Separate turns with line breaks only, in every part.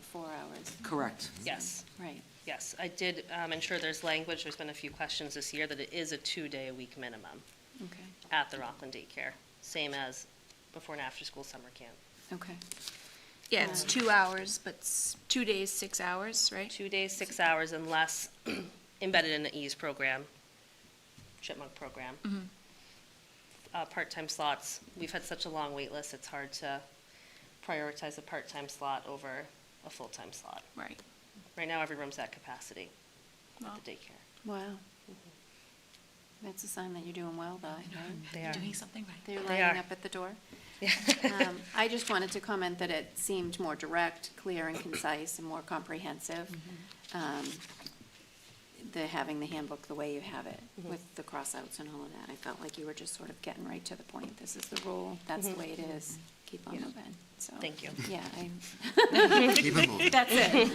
funds.
Correct.
Yes,
Right.
yes. I did um, ensure there's language, there's been a few questions this year, that it is a two-day-a-week minimum
Okay.
at the Rockland daycare, same as before and after-school summer camp.
Okay. Yeah, it's two hours, but s- two days, six hours, right?
Two days, six hours, unless embedded in the EASE program, chipmunk program. Uh, Part-time slots, we've had such a long wait list. it's hard to prioritize a part-time slot over a full-time slot.
Right.
Right now, every room's at capacity
Wow.
at the daycare.
Wow.
Mm-hmm.
That's a sign that you're doing well, though, right?
They are.
doing something right.
They're
They
lining
are.
up at the door. Um, I just wanted to comment that it seemed more direct, clear, and concise, and more comprehensive.
Mm-hmm.
Um, The, having the handbook the way you have it,
Mm-hmm.
with the cross-outs and all of that. I felt like you were just sort of getting right to the point. This is the rule, that's the way it is. Keep on moving, so.
Mm-hmm. Thank you.
Yeah, I,
Keep it moving.
That's it.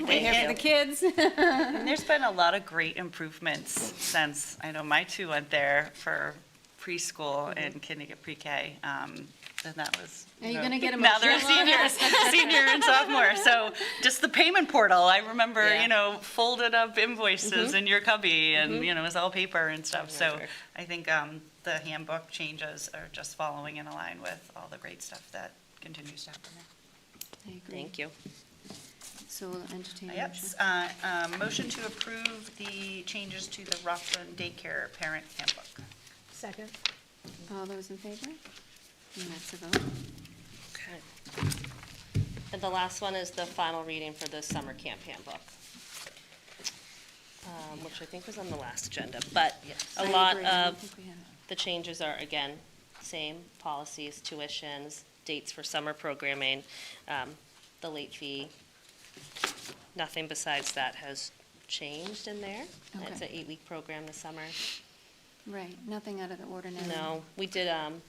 We're here for the kids.
And there's been a lot of great improvements since, I know my two went there for preschool and kindergarten, pre-K. um, And that was.
Mm-hmm. Are you
know,
gonna get
Now they're
emotional on
seniors, senior and sophomore. So just the payment portal, I remember,
Yeah.
you know, folded up
Mm-hmm.
invoices in your cubby and, you know, it was all paper and stuff. So
remember.
I think um, the handbook changes are just following in line with all the great stuff that continues to happen there.
Thank you.
So we'll entertain a
Yep,
motion.
uh, um, motion to approve the changes to the Rockland Daycare Parent Handbook.
Second.
All those in favor? And that's a vote.
And the last one is the final reading for the summer camp handbook, um, which I think was on the last agenda, but a
I
lot
agree. I
of
don't think we have it.
the changes are, again, same policies, tuitions, dates for summer programming, um, the late fee. Nothing besides that has changed in there. It's an
Okay.
eight-week program this summer.
Right, nothing out of the ordinary.
No, we did, um,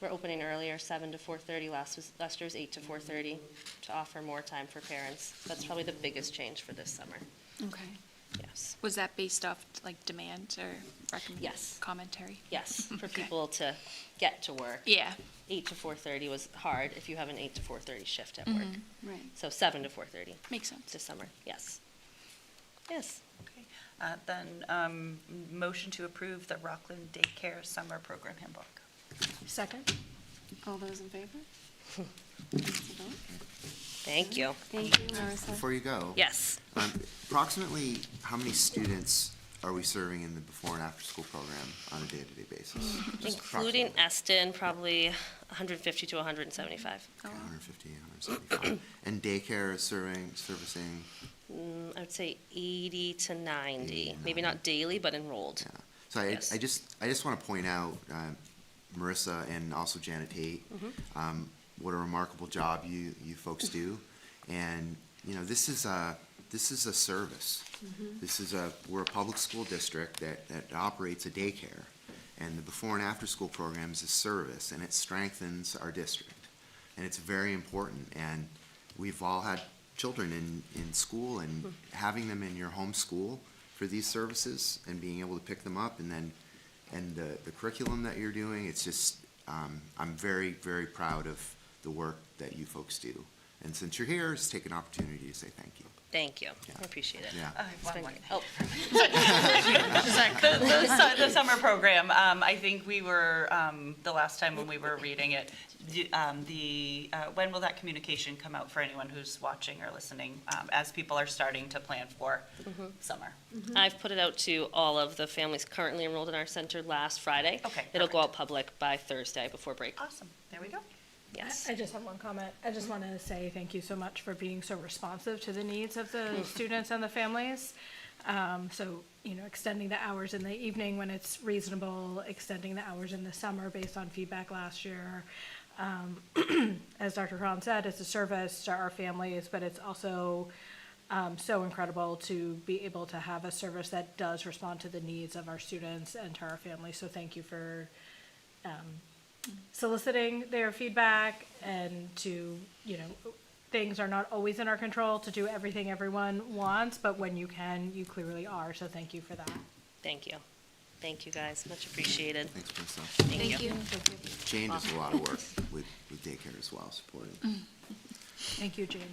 we're opening earlier, seven to four thirty, last was, last year was eight to four thirty, to offer more time for parents. That's probably the biggest change for this summer,
Okay.
yes.
Was that based off like demand or recommend?
Yes.
Commentary?
Yes, for
Okay.
people to get to work.
Yeah,
Eight to four thirty was hard if you have an eight to four thirty shift at work.
Right.
So seven to four thirty
makes sense.
this summer, yes. Yes,
Okay. Uh, Then, um, motion to approve the Rockland Daycare Summer Program Handbook.
Second.
All those in favor? That's a vote.
thank you.
Thank you, Marissa.
Before you go.
Yes,
um, Approximately, how many students are we serving in the before and after school program on a day-to-day basis? Just
including
approximately.
Eston, probably hundred fifty to hundred and seventy-five.
Okay, 150, 175. And daycare is serving, servicing,
Mm, I would say 80 to 90,
80,
maybe not daily, but enrolled.
yeah. So I,
Yes.
I just, I just want to point out, um, Marissa and also Janet Tate,
Mm-hmm.
um, what a remarkable job you, you folks do. And, you know, this is a, this is a service. This is a, we're a public school district that, that operates a daycare. And the before and after school program is a service and it strengthens our district. And it's very important. And we've all had children in, in school and having them in your home school for these services and being able to pick them up and then, and the, the curriculum that you're doing, it's just, um, I'm very, very proud of the work that you folks do. And since you're here, just take an opportunity to say thank you.
Thank you. I
Yeah.
appreciate it.
Yeah.
I have
It's
one
been
more
great.
thing.
Oh,
The, the su- the summer program, um, I think we were, um, the last time when we were reading it, the, um, the, uh, when will that communication come out for anyone who's watching or listening, um, as people are starting to plan for summer?
I've put it out to all of the families currently enrolled in our center last Friday.
Okay,
It'll go
perfect.
out public by Thursday before break.
Awesome, there we go.
Yes.
I just have one comment. I just want to say thank you so much for being so responsive to the needs of the students and the families. Um, so, you know, extending the hours in the evening when it's reasonable, extending the hours in the summer based on feedback last year. Um, as Dr. Cron said, it's a service to our families, but it's also um, so incredible to be able to have a service that does respond to the needs of our students and to our families. So thank you for soliciting their feedback and to, you know, things are not always in our control to do everything everyone wants, but when you can, you clearly are. So thank you for that.
Thank you. Thank you, guys. Much appreciated.
Thanks, Marissa.
Thank you.
Jane does a lot of work with, with daycare as well, supporting.
Thank you, Jane.